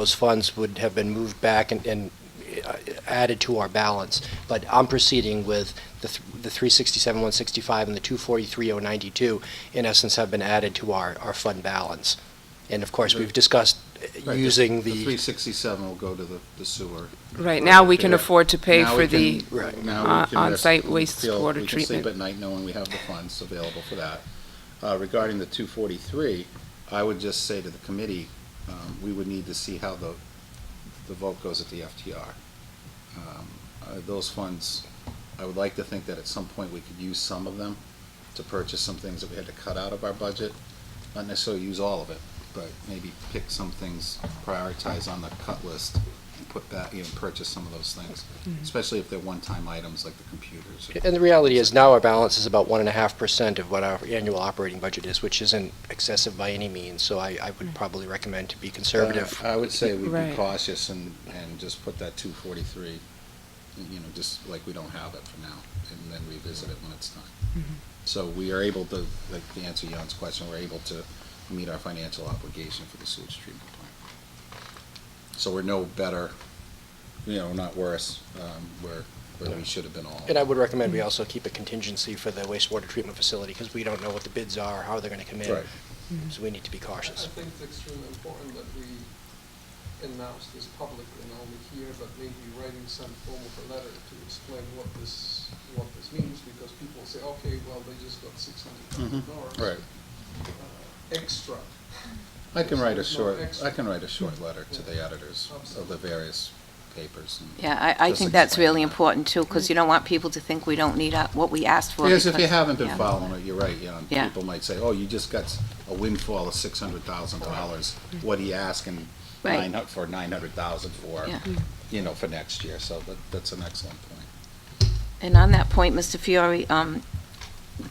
those funds would have been moved back and, and uh, added to our balance. But I'm proceeding with the, th- the three sixty-seven, one sixty-five and the two forty-three, oh ninety-two, in essence, have been added to our, our fund balance. And of course, we've discussed uh, Right, using the. The three sixty-seven will go to the the sewer. Right, now we can Yeah. afford to pay Now for we the, can- Right. now we on- can rest- on-site we feel- wastewater We can sleep treatment. at night knowing we have the funds available for that. Uh, Regarding the two forty-three, I would just say to the committee, um, we would need to see how the, the vote goes at the FTR. Um, uh, Those funds, I would like to think that at some point we could use some of them to purchase some things that we had to cut out of our budget. Not necessarily use all of it, but maybe pick some things, prioritize on the cut list and put back, you know, purchase some of those things, especially if they're one-time items like the computers. or- And the reality is now our balance is about one and a half percent of what our annual operating budget is, which isn't excessive by any means, so I, I would probably recommend to be conservative. Uh, I would say we'd be Right. cautious and, and just put that two forty-three, you know, just like we don't have it for now, and then revisit it when it's time. So we are able to, like, to answer Jan's question, we're able to meet our financial obligation for the sewage treatment plant. So we're no better, you know, not worse, um, where, where we should have been all. And I would recommend we also keep a contingency for the wastewater treatment facility, because we don't know what the bids are, how they're gonna come in. Right. Mm-hmm. So we need to be I cautious. think it's extremely important that we announce this publicly, not only here, but maybe writing some form of a letter to explain what this, what this means, because people say, okay, well, they just got six hundred thousand dollars. uh, Right. Extra. I can write a There's no short, extra. I can write a short letter to the editors of the various papers. and Yeah, I, I just think that's explain really that. important too, because you don't want people to think we don't need uh, what we asked for. Yes, if you because- haven't been yeah. following it, you're right, Jan. Yeah. People might say, oh, you just got s- a windfall of six hundred thousand dollars. What are you asking Right. nine hu- for nine hundred thousand for, Yeah. you know, for next year? So that, that's an excellent point. And on that point, Mr. Fiore, um,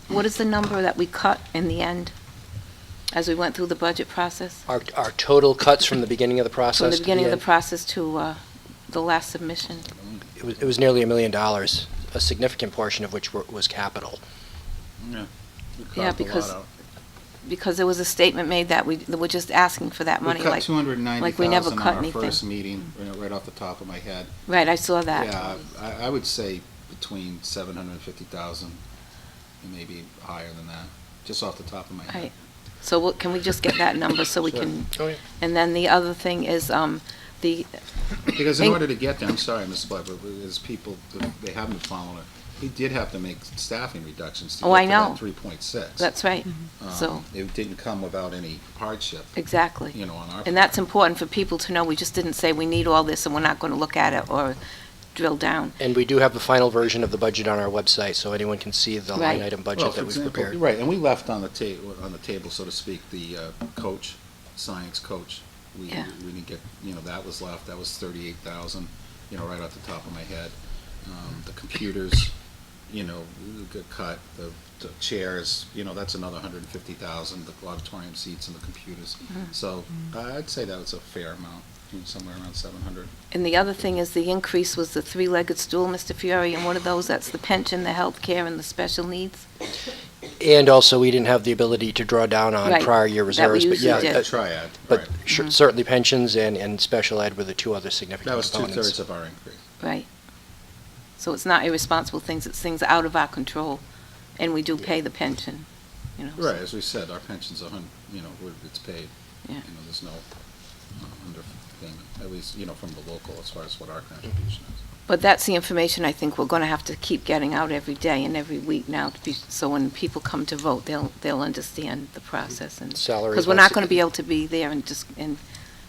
what is the number that we cut in the end as we went through the budget process? Our, our total cuts from the beginning of the From process the to beginning of the end, process to, uh, the last submission? it was, it was nearly a million dollars, a significant portion of which were- was capital. Yeah. Yeah, because Because there was a statement made that we, that we're just asking for that We money, cut like, two hundred and ninety like we never thousand cut on our anything. first meeting, you know, right off the top of my head. right, I saw that. Yeah, I, I would say between seven hundred and fifty thousand and maybe higher than that, just off the top of my head. Right. So what, can we just get that number so we Sure. can, Oh, yeah. and then the other thing is, um, the, Because in Thank- order to get there, I'm sorry, Ms. Blair, but as people, they haven't been following it, we did have to make staffing reductions to Oh, get I to that know. three point six. Um, that's right, Mm-hmm. so, It didn't come without any hardship, exactly. you know, on our. And that's important for people to know, we just didn't say we need all this and we're not going to look at it or drill down. And we do have the final version of the budget on our website, so anyone can see the line Right. item Well, budget for that we've example, prepared. Right, and we left on the ta, on the table, so to speak, the uh, coach, science coach. We, Yeah. we didn't get, you know, that was left, that was thirty-eight thousand, you know, right off the top of my head. Um, The computers, you know, we got cut, the the chairs, you know, that's another hundred and fifty thousand, the auditorium seats and the computers. Mm-hmm. So I'd say that was a fair amount, you know, somewhere around seven hundred. And the other thing is the increase was the three-legged stool, Mr. Fiore, and one of those, that's the pension, the health care, and the special needs. And also, we didn't have the ability to draw down on Right. prior year That we reserves, but usually yeah. did. Mm-hmm. uh, Triad, right. But sh- certainly pensions and, and special ed were the two other significant That was components. two-thirds of our increase. Right. So it's not irresponsible things, it's things out of our control, and we do pay the pension, you know. so- Right, as we said, our pension's a hun, you know, we're- it's paid. You Yeah. know, there's no uh, underpayment, at least, you know, from the local as far as what our contribution is. But that's the information I think we're going to have to keep getting out every day and every week now, to be- so when people come to vote, they'll, they'll understand the process and. Salary Because we're not was- going to be able to be there and just, and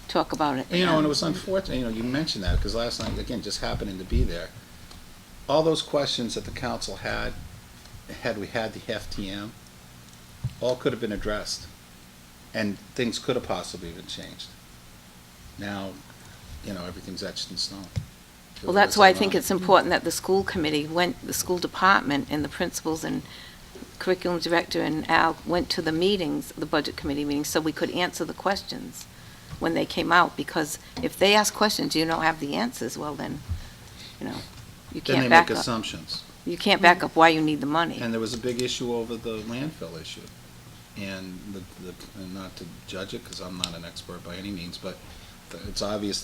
talk about it. And, You know, and it was unfortunate, you know, you mentioned that, because last night, again, just happening to be there, all those questions that the council had, had we had the FTM, all could have been addressed, and things could have possibly been changed. Now, you know, everything's etched in stone. Well, that's why I think Whether it's important that the school committee went, the school department and the principals and curriculum director and Al went to the meetings, the budget committee meetings, so we could answer the questions when they came out, because if they ask questions, you don't have the answers, well then, you know, you Then they can't back up. make assumptions. You can't back up why you need the money. And there was a big issue over the landfill issue. And the, the, and not to judge it, because I'm not an expert by any means, but it's obvious